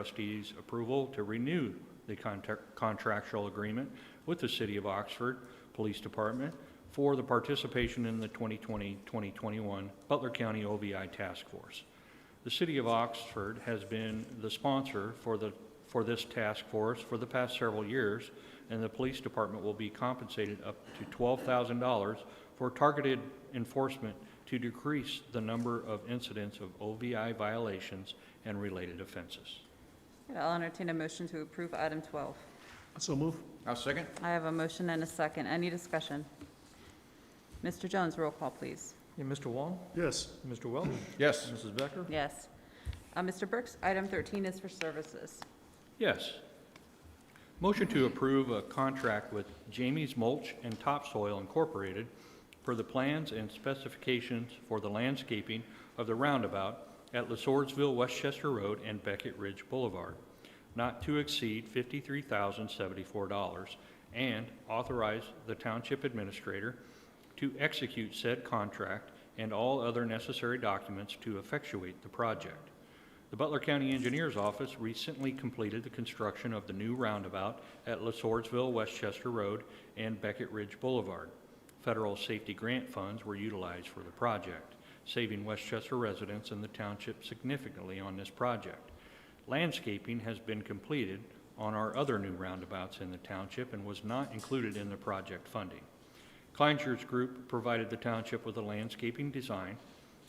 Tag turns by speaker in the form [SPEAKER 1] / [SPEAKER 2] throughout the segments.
[SPEAKER 1] trustees' approval to renew the contact- contractual agreement with the City of Oxford Police Department for the participation in the 2020-2021 Butler County OVI Task Force. The City of Oxford has been the sponsor for the, for this task force for the past several years, and the police department will be compensated up to $12,000 for targeted enforcement to decrease the number of incidents of OVI violations and related offenses.
[SPEAKER 2] And I'll entertain a motion to approve item 12.
[SPEAKER 3] So move.
[SPEAKER 4] I'll second.
[SPEAKER 2] I have a motion and a second. Any discussion? Mr. Jones, roll call, please.
[SPEAKER 5] Yeah, Mr. Wong?
[SPEAKER 3] Yes.
[SPEAKER 5] Mr. Welch?
[SPEAKER 4] Yes.
[SPEAKER 5] Mrs. Becker?
[SPEAKER 2] Yes. Uh, Mr. Burks, item 13 is for services.
[SPEAKER 1] Yes. Motion to approve a contract with Jamie's Mulch and Topsoil Incorporated for the plans and specifications for the landscaping of the roundabout at Lesourceville, Westchester Road and Beckett Ridge Boulevard, not to exceed $53,074, and authorize the township administrator to execute said contract and all other necessary documents to effectuate the project. The Butler County Engineers Office recently completed the construction of the new roundabout at Lesourceville, Westchester Road, and Beckett Ridge Boulevard. Federal safety grant funds were utilized for the project, saving Westchester residents and the township significantly on this project. Landscaping has been completed on our other new roundabouts in the township and was not included in the project funding. Kleinscher's Group provided the township with a landscaping design,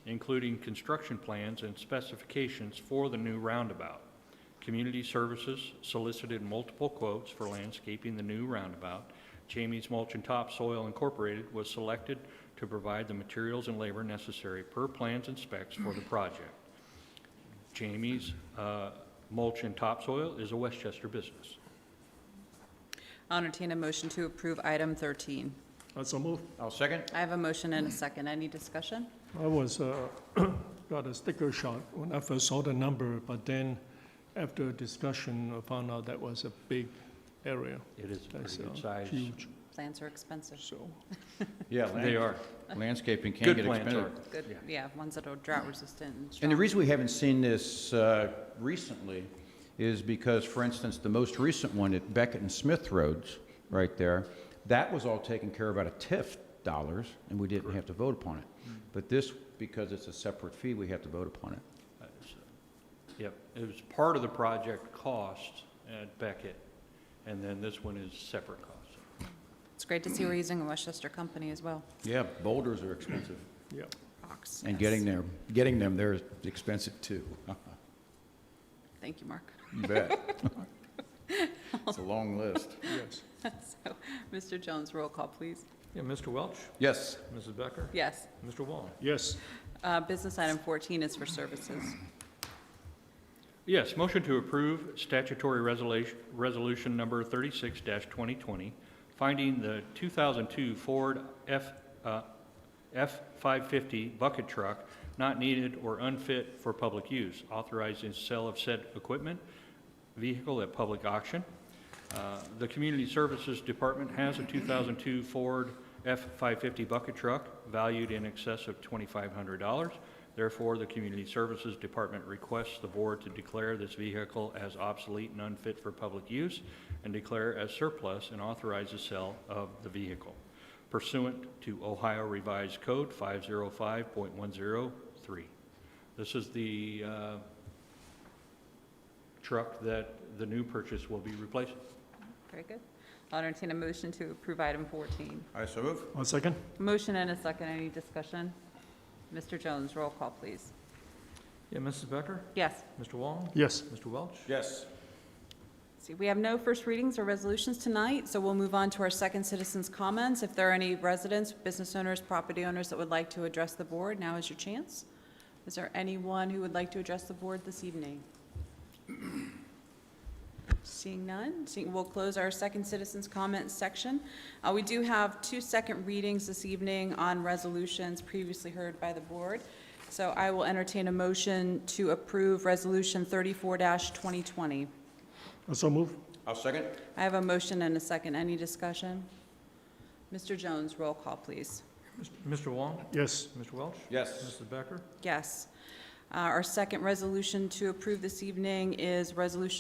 [SPEAKER 1] including construction plans and specifications for the new roundabout. Community Services solicited multiple quotes for landscaping the new roundabout. Jamie's Mulch and Topsoil Incorporated was selected to provide the materials and labor necessary per plans and specs for the project. Jamie's uh, Mulch and Topsoil is a Westchester business.
[SPEAKER 2] I'll entertain a motion to approve item 13.
[SPEAKER 3] So move.
[SPEAKER 4] I'll second.
[SPEAKER 2] I have a motion and a second. Any discussion?
[SPEAKER 3] I was uh, got a sticker shock when I first saw the number, but then after discussion, I found out that was a big area.
[SPEAKER 1] It is a
[SPEAKER 3] That's
[SPEAKER 1] pretty good
[SPEAKER 3] uh,
[SPEAKER 1] size.
[SPEAKER 3] Huge,
[SPEAKER 2] Plans are expensive.
[SPEAKER 3] so.
[SPEAKER 4] Yeah.
[SPEAKER 1] They
[SPEAKER 4] land-
[SPEAKER 1] are.
[SPEAKER 4] Landscaping can
[SPEAKER 1] Good
[SPEAKER 4] get
[SPEAKER 1] plans
[SPEAKER 4] expensive.
[SPEAKER 1] are.
[SPEAKER 2] Good, yeah, ones that are drought resistant and
[SPEAKER 4] And the
[SPEAKER 2] strong.
[SPEAKER 4] reason we haven't seen this uh, recently is because, for instance, the most recent one at Beckett and Smith Roads, right there, that was all taken care of out of TIF dollars, and we didn't have to vote upon it. But this, because it's a separate fee, we have to vote upon it.
[SPEAKER 1] Uh, so- Yep, it was part of the project cost at Beckett, and then this one is separate cost.
[SPEAKER 2] It's great to see we're using a Westchester company as well.
[SPEAKER 4] Yeah, boulders are expensive.
[SPEAKER 3] Yeah.
[SPEAKER 2] Rocks,
[SPEAKER 4] And
[SPEAKER 2] yes.
[SPEAKER 4] getting there, getting them there is expensive too.
[SPEAKER 2] Thank you, Mark.
[SPEAKER 4] You bet. It's a long list.
[SPEAKER 3] Yes.
[SPEAKER 2] So, Mr. Jones, roll call, please.
[SPEAKER 5] Yeah, Mr. Welch?
[SPEAKER 4] Yes.
[SPEAKER 5] Mrs. Becker?
[SPEAKER 2] Yes.
[SPEAKER 5] Mr. Wong?
[SPEAKER 3] Yes.
[SPEAKER 2] Uh, Business item 14 is for services.
[SPEAKER 1] Yes, motion to approve statutory resolution, resolution number thirty-six twenty twenty, finding the two thousand two Ford F, uh, F five fifty bucket truck not needed or unfit for public use, authorizing sale of said equipment, vehicle at public auction. Uh, The Community Services Department has a 2002 Ford F-550 bucket truck valued in excess of $2,500. Therefore, the Community Services Department requests the board to declare this vehicle as obsolete and unfit for public use and declare as surplus and authorize the sale of the vehicle pursuant to Ohio Revised Code 505.103. This is the uh, truck that the new purchase will be replacing.
[SPEAKER 2] Very good. I'll entertain a motion to approve item 14.
[SPEAKER 4] I so move.
[SPEAKER 3] One second.
[SPEAKER 2] Motion and a second, any discussion? Mr. Jones, roll call, please.
[SPEAKER 5] Yeah, Mrs. Becker?
[SPEAKER 2] Yes.
[SPEAKER 5] Mr. Wong?
[SPEAKER 3] Yes.
[SPEAKER 5] Mr. Welch?
[SPEAKER 4] Yes.
[SPEAKER 2] See, we have no first readings or resolutions tonight, so we'll move on to our second citizens' comments. If there are any residents, business owners, property owners that would like to address the board, now is your chance. Is there anyone who would like to address the board this evening? Seeing none, seeing, we'll close our second citizens' comments section. Uh, we do have two second readings this evening on resolutions previously heard by the board. So I will entertain a motion to approve Resolution thirty-four twenty twenty.
[SPEAKER 3] So move.
[SPEAKER 4] I'll second.
[SPEAKER 2] I have a motion and a second. Any discussion? Mr. Jones, roll call, please.
[SPEAKER 5] Mr. Wong?
[SPEAKER 3] Yes.
[SPEAKER 5] Mr. Welch?
[SPEAKER 4] Yes.
[SPEAKER 5] Mrs. Becker?
[SPEAKER 2] Yes. Uh, Our second resolution to approve this evening is Resolution